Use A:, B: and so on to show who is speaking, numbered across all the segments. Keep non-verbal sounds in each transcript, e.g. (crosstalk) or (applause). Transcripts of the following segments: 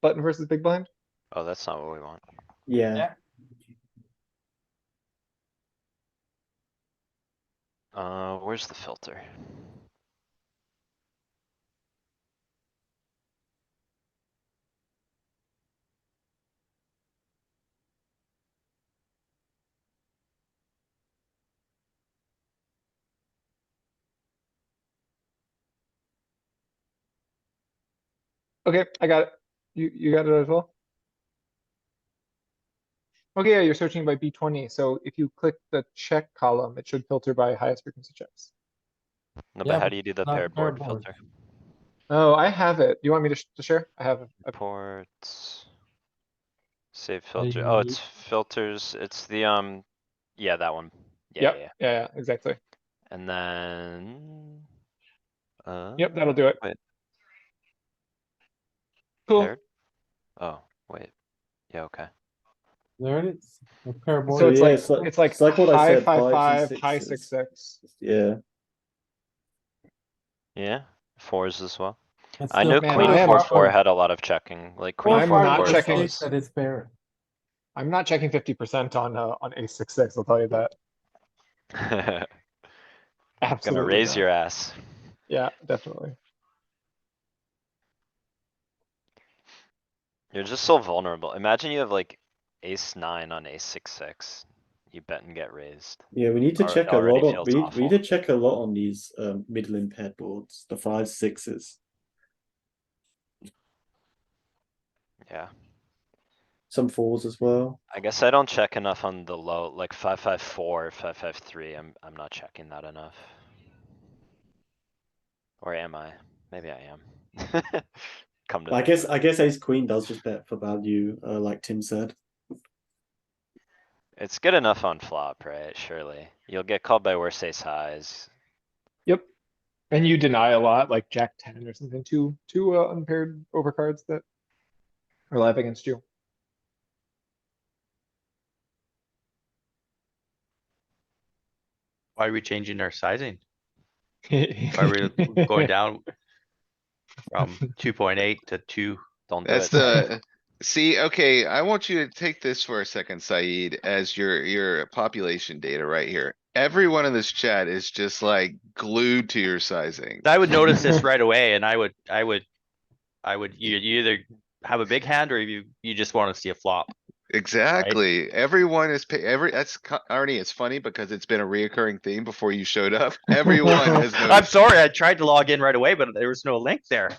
A: button versus big blind?
B: Oh, that's not what we want.
C: Yeah,
B: Uh, where's the filter?
A: Okay, I got it. You, you got it as well? Okay, yeah, you're searching by B twenty, so if you click the check column, it should filter by highest frequency checks.
B: No, but
C: Yeah,
B: how
C: but
B: do you do the
C: not
B: pair board
C: pairboard.
B: filter?
A: Oh, I have it. You want me to, sh- to share? I have, a-
B: Ports. Save
C: you
B: filter, oh,
C: need-
B: it's filters, it's the, um, yeah, that one. Yeah,
A: Yep.
B: yeah, yeah.
A: yeah, yeah, exactly.
B: and then. Uh.
A: Yep, that'll do it.
B: wait,
A: Cool.
B: paired? Oh, wait, yeah, okay.
C: there it is. A pair board.
A: So it's
D: yeah,
A: like,
D: it's like-
A: it's like
D: it's like what I
A: high
D: said,
A: five,
D: fives
A: five,
D: and
A: high
D: sixes.
A: six, six.
D: Yeah,
B: Yeah, fours as well.
C: That's
B: I
C: the
B: know
A: man,
B: queen
A: I am
B: four,
A: up
B: four
A: on-
B: had a lot of checking, like
C: four
B: queen
A: I'm
C: five
B: four,
A: not
B: four
C: is
A: checking.
C: safe
B: folds.
C: That it's paired.
A: I'm not checking fifty percent on, uh, on ace six, six, I'll tell you that.
B: (laughs) Gonna
A: Absolutely.
B: raise
A: not.
B: your ass.
A: Yeah, definitely.
B: You're just so vulnerable. Imagine you have like ace nine on ace six, six. You bet and get raised.
D: yeah, we need to
B: Alright,
D: check a
B: already
D: lot on,
B: feels
D: we, need- we need
B: awful.
D: to check a lot on these, um, middle impaired boards, the five, sixes.
B: Yeah,
D: Some fours as well,
B: I guess I don't check enough on the low, like five, five, four, five, five, three. I'm, I'm not checking that enough. Or am I? Maybe I am. (laughs) Come to.
D: I
B: think
D: guess,
B: of
D: I guess ace queen does just bet for value, uh, like Tim said.
B: it. It's good enough on flop, right? Surely. You'll get called by worse ace highs.
A: And you deny a lot, like Jack ten or something, two, two uh, unpaired overcards that are live against you.
E: Why are we changing our sizing? Why
A: Are (laughs)
E: are we going down? From two point eight to two,
B: Don't do it.
F: That's the, see, okay, I want you to take this for a second, Saeed, as your, your population data right here. Everyone in this chat is just like glued to your sizing.
E: I would notice this right away and I would, I would. I would, you, you either have a big hand or you, you just wanna see a flop.
F: Exactly. Everyone is, pa- every, that's, co- Arnie, it's funny because it's been a reoccurring theme before you showed up. Everyone has
E: I'm
F: noticed.
E: sorry, I tried to log in right away, but there was no link there.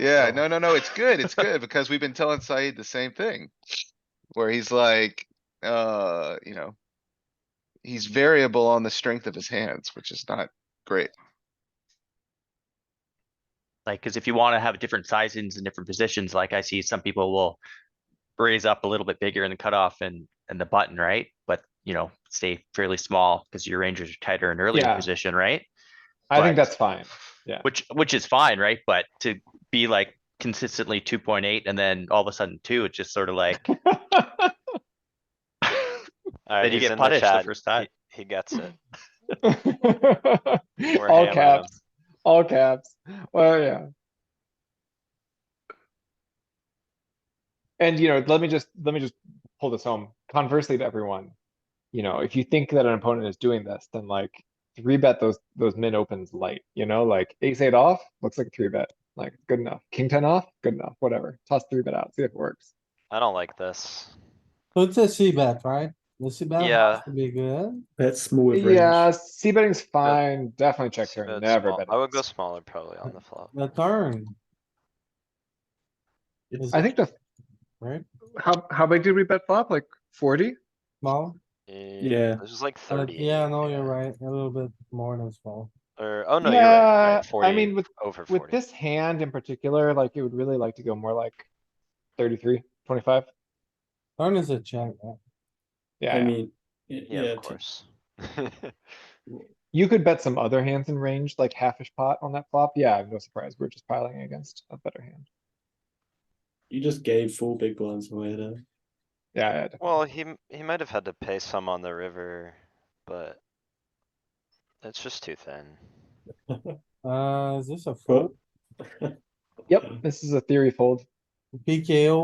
F: Yeah, no, no, no, it's good. It's good because we've been telling Saeed the same thing. Where he's like, uh, you know. He's variable on the strength of his hands, which is not great.
E: Like, cause if you wanna have different sizings and different positions, like I see some people will. Raise up a little bit bigger in the cutoff and, and the button, right? But, you know, stay fairly small, cause your rangers are tighter in earlier
A: Yeah.
E: position, right?
A: I think
E: Right.
A: that's fine.
E: Which, which is fine, right? But to be like consistently two point eight and then all of a sudden two, it's just sort of like,
A: (laughs)
B: Alright,
E: then you
B: he's
E: get
B: in the
E: punished the
B: chat.
E: first time.
B: He gets it.
E: (clears throat)
B: We're
A: All
B: hammering him.
A: caps, all caps. Well, yeah. And you know, let me just, let me just pull this home. Conversely to everyone, you know, if you think that an opponent is doing this, then like three bet those, those min opens light, you know, like ace eight off, looks like a three bet. Like, good enough. King ten off, good enough, whatever. Toss three bet out, see if it works.
B: I don't like this.
C: So it's a C bet, right? The C bet
B: Yeah.
C: has to be good.
D: That's small with range.
A: Yeah, C betting's fine. Definitely check
B: Just
A: here.
B: bet
A: Never
B: small.
A: bet.
B: I would go
A: against.
B: smaller probably
A: (laughs)
B: on the flop.
C: The turn.
D: It's-
C: Is
A: I think the,
C: Right,
A: how, how big did we bet flop? Like forty?
C: small,
B: Yeah,
D: Yeah.
B: this is like
C: Uh,
B: thirty.
C: yeah, no, you're right, a little bit more than small.
B: Or, oh no, you're right,
A: Yeah,
B: right,
A: I
B: forty,
A: mean, with,
B: over
A: with
B: forty.
A: this hand in particular, like you would really like to go more like 33, 25.
C: Turn is a check, right?
A: Yeah,
D: I
A: yeah.
D: mean, y-
B: Yeah,
D: yeah,
B: of
D: t-
B: course. (laughs)
A: you could bet some other hands in range, like halfish pot on that flop. Yeah, I'm no surprise. We're just piling against a better hand.
D: you just gave four big blinds away there.
A: Yeah, yeah, definitely.
B: Well, he, m- he might have had to pay some on the river, but. It's just too thin.
C: Uh, is this a
D: Well,
C: fold?
A: Yep, this is a theory fold.
C: PKO